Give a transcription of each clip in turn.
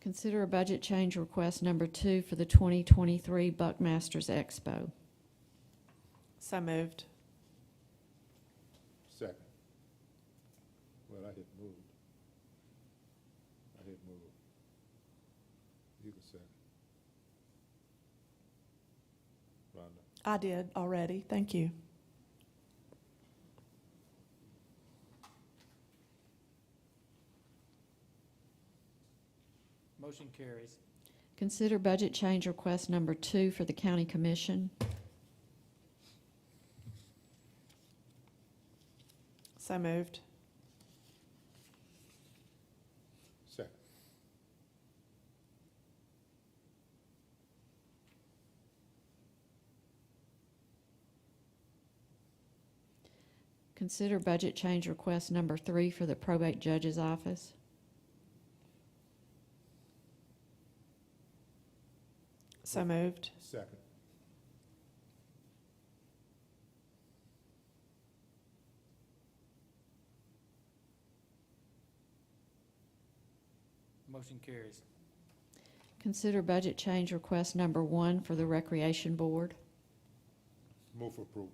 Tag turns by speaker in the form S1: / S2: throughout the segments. S1: Consider a budget change request number two for the 2023 Buckmasters Expo.
S2: So moved.
S3: Second. Well, I had moved. I had moved. You can second. Rhonda,
S2: I did already. Thank you.
S4: Motion carries.
S1: Consider budget change request number two for the County Commission.
S2: So moved.
S3: second.
S1: Consider budget change request number three for the Probate Judge's Office.
S2: So moved.
S3: Second.
S4: Motion carries.
S1: Consider budget change request number one for the Recreation Board.
S3: Move for approval.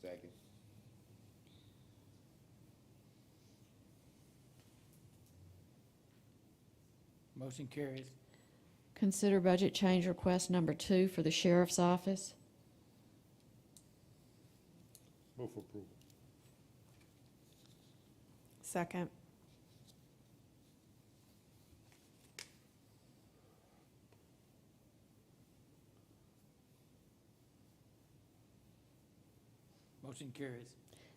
S5: Second.
S4: Motion carries.
S1: Consider budget change request number two for the Sheriff's Office.
S3: Move for approval.
S2: Second.
S4: Motion carries.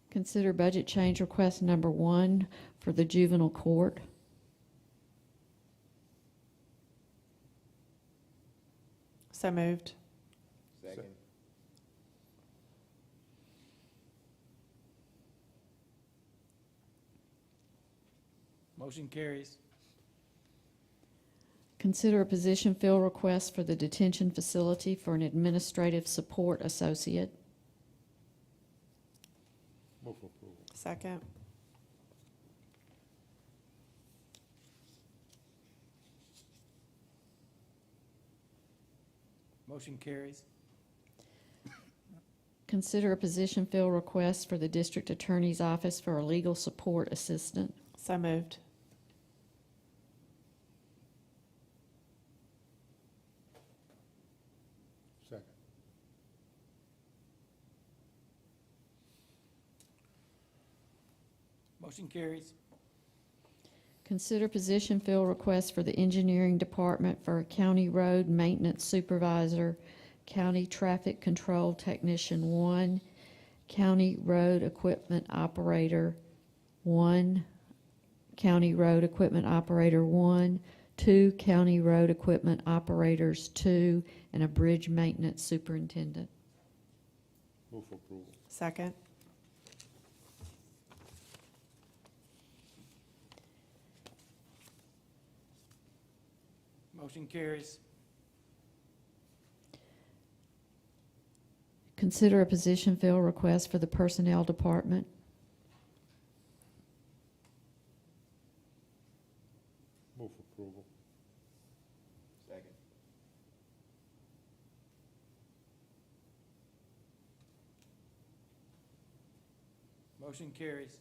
S1: Consider budget change request number one for the Juvenile Court.
S2: So moved.
S5: Second.
S4: Motion carries.
S1: Consider a position fill request for the detention facility for an administrative support associate.
S3: Move for approval.
S2: Second.
S4: Motion carries.
S1: Consider a position fill request for the district attorney's office for a legal support assistant.
S2: So moved.
S3: Second.
S4: Motion carries.
S1: Consider position fill request for the engineering department for a county road maintenance supervisor, county traffic control technician one, county road equipment operator one, county road equipment operator one, two county road equipment operators two, and a bridge maintenance superintendent.
S3: Move for approval.
S2: Second.
S4: Motion carries.
S1: Consider a position fill request for the personnel department.
S3: Move for approval.
S5: Second.
S4: Motion carries.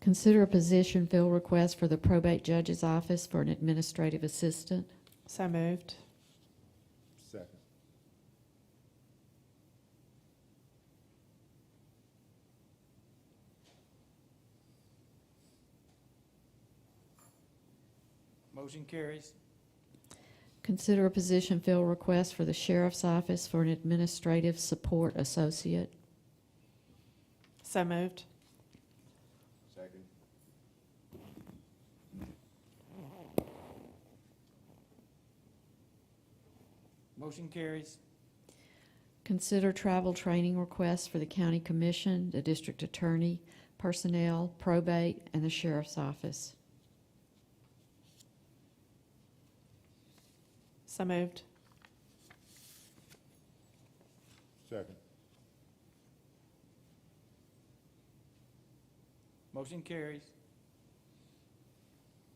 S1: Consider a position fill request for the probate judge's office for an administrative assistant.
S2: So moved.
S3: Second.
S4: Motion carries.
S1: Consider a position fill request for the sheriff's office for an administrative support associate.
S2: So moved.
S5: Second.
S4: Motion carries.
S1: Consider travel training requests for the county commission, the district attorney, personnel, probate, and the sheriff's office.
S2: So moved.
S3: Second.
S4: Motion carries.